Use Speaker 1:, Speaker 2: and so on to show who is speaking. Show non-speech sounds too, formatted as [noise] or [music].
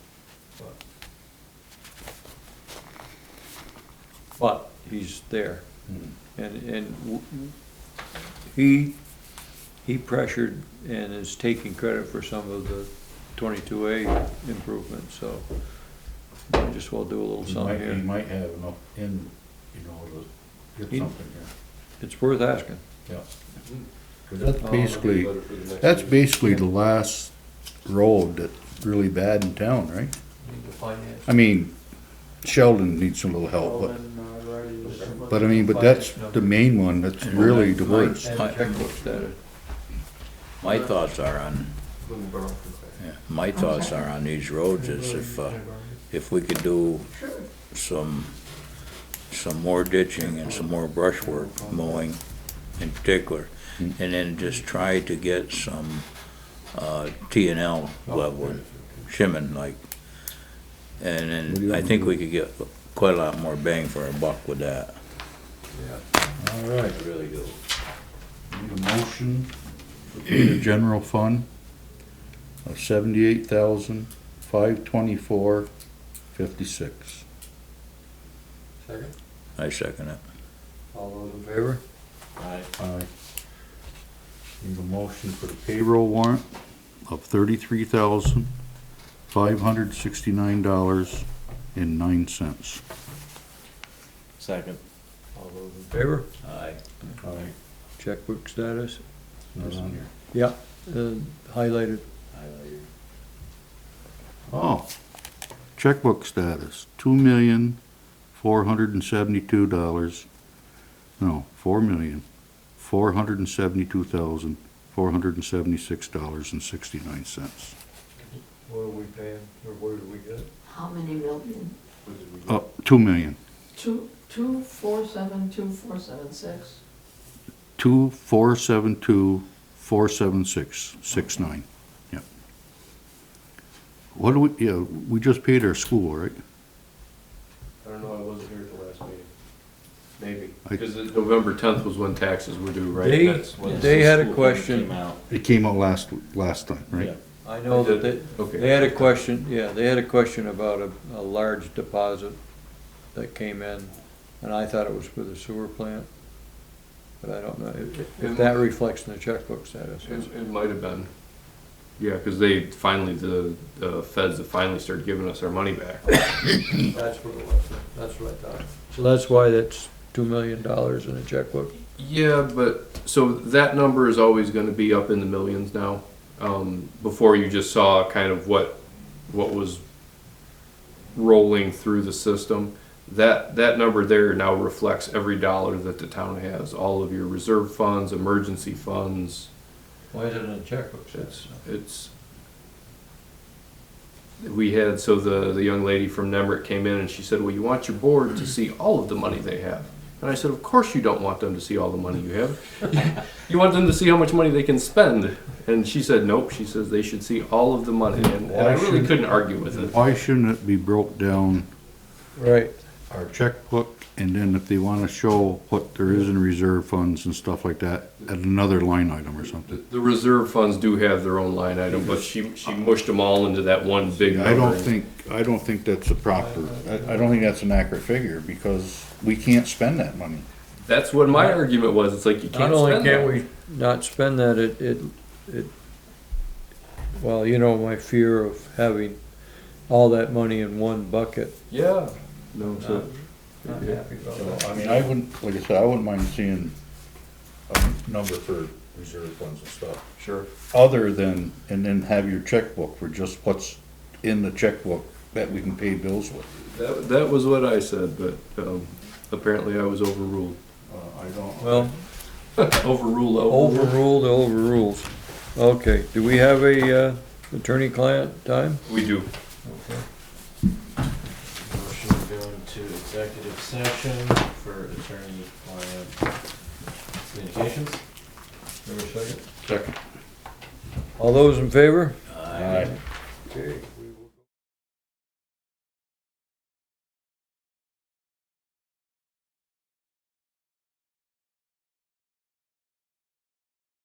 Speaker 1: But he's there.
Speaker 2: Hmm.
Speaker 1: And, and w- he, he pressured and is taking credit for some of the twenty-two A improvements, so might just well do a little
Speaker 2: He might,
Speaker 1: something
Speaker 2: he
Speaker 1: here.
Speaker 2: might have enough in, you know, to
Speaker 1: He-
Speaker 2: get something here,
Speaker 1: It's worth asking.
Speaker 2: yeah. Hmm.
Speaker 3: That's
Speaker 1: Oh,
Speaker 3: basically, that's basically the last road that's really bad in town, right? I mean, Sheldon needs a little help,
Speaker 1: uh,
Speaker 3: but, Oh, but I mean, but that's the main one that's really the worst.
Speaker 1: Checklist that,
Speaker 4: My thoughts are on, my thoughts are on these roads is if, uh, if we could do some, some more ditching and some more brushwork mowing in particular, and then just try to get some, uh, T and L level, shimming like. And then I think we could get quite a lot more bang for our buck with that.
Speaker 2: All right,
Speaker 4: I really do.
Speaker 2: need a motion
Speaker 3: [clears throat]
Speaker 2: for the general fund of seventy-eight thousand, five twenty-four, fifty-six.
Speaker 1: Second,
Speaker 4: I second it.
Speaker 1: all those in favor?
Speaker 2: Aye. Need a motion for the payroll warrant of thirty-three thousand, five hundred sixty-nine dollars and nine cents.
Speaker 4: Second.
Speaker 1: All those in favor?
Speaker 4: Aye.
Speaker 2: Aye.
Speaker 1: Checkbook status?
Speaker 2: Not on here.
Speaker 1: Yeah, uh, highlighted.
Speaker 2: Oh, checkbook status, two million, four hundred and seventy-two dollars, no, four million, four hundred and seventy-two thousand, four hundred and seventy-six dollars and sixty-nine cents.
Speaker 1: What are we paying, or where do we get it?
Speaker 5: How many million?
Speaker 2: Uh, two million,
Speaker 5: Two, two, four, seven, two, four, seven, six?
Speaker 2: two, four, seven, two, four, seven, six, six, nine, yep. What do we, yeah, we just paid our school, right?
Speaker 6: I don't know, I wasn't here at the last meeting. Maybe.
Speaker 2: I-
Speaker 6: Because it- November tenth was when taxes were due, right?
Speaker 1: They,
Speaker 6: That's when-
Speaker 1: Uh, they had a question,
Speaker 2: It came out last, last time, right?
Speaker 1: I know that they,
Speaker 6: Okay.
Speaker 1: They had a question, yeah, they had a question about a, a large deposit that came in, and I thought it was for the sewer plant. But I don't know if, if that reflects in the checkbook status.
Speaker 6: It, it might have been. Yeah, because they finally, the, the feds have finally started giving us our money back.
Speaker 7: That's what it was, that's what I thought.
Speaker 1: So that's why that's two million dollars in a checkbook.
Speaker 6: Yeah, but, so that number is always gonna be up in the millions now. Um, before you just saw kind of what, what was rolling through the system. That, that number there now reflects every dollar that the town has, all of your reserve funds, emergency funds.
Speaker 1: Why is it in a checkbook
Speaker 6: It's, it's, we had, so the, the young lady from Nemrick came in and she said, well, you want your board to see all of the money they have. And I said, of course you don't want them to see all the money you have. You want them to see how much money they can spend. And she said, nope, she says they should see all of the money. And and I really couldn't argue with it.
Speaker 2: Why shouldn't it be broke down
Speaker 1: Right,
Speaker 2: our checkbook, and then if they wanna show what there is in reserve funds and stuff like that, at another line item or
Speaker 6: The-
Speaker 2: something.
Speaker 6: The reserve funds do have their own line item, but she, she mushed them all into that one big number.
Speaker 2: I don't think, I don't think that's a proper, I, I don't think that's an accurate figure, because we can't spend that money.
Speaker 6: That's what my argument was. It's like, you
Speaker 1: not
Speaker 6: can't
Speaker 1: only
Speaker 6: spend
Speaker 1: can't
Speaker 6: that.
Speaker 1: we not spend that, it, it, it, well, you know, my fear of having all that money in one bucket.
Speaker 6: Yeah. No, so.
Speaker 1: Not happy about
Speaker 2: So,
Speaker 1: that.
Speaker 2: I mean, I wouldn't, like I said, I wouldn't mind seeing a number for reserve funds and stuff.
Speaker 6: Sure.
Speaker 2: Other than, and then have your checkbook for just what's in the checkbook that we can pay bills with.
Speaker 6: That, that was what I said, but um, apparently I was overruled.
Speaker 2: Uh, I don't.
Speaker 1: Well,
Speaker 6: Overruled, overruled.
Speaker 1: Overruled, overrules. Okay, do we have a uh, attorney-client time?
Speaker 6: We do.
Speaker 7: Motion to go into executive session for attorney-client communications.
Speaker 1: Have a second?
Speaker 2: Second.
Speaker 1: All those in favor?
Speaker 2: Aye.
Speaker 1: Okay,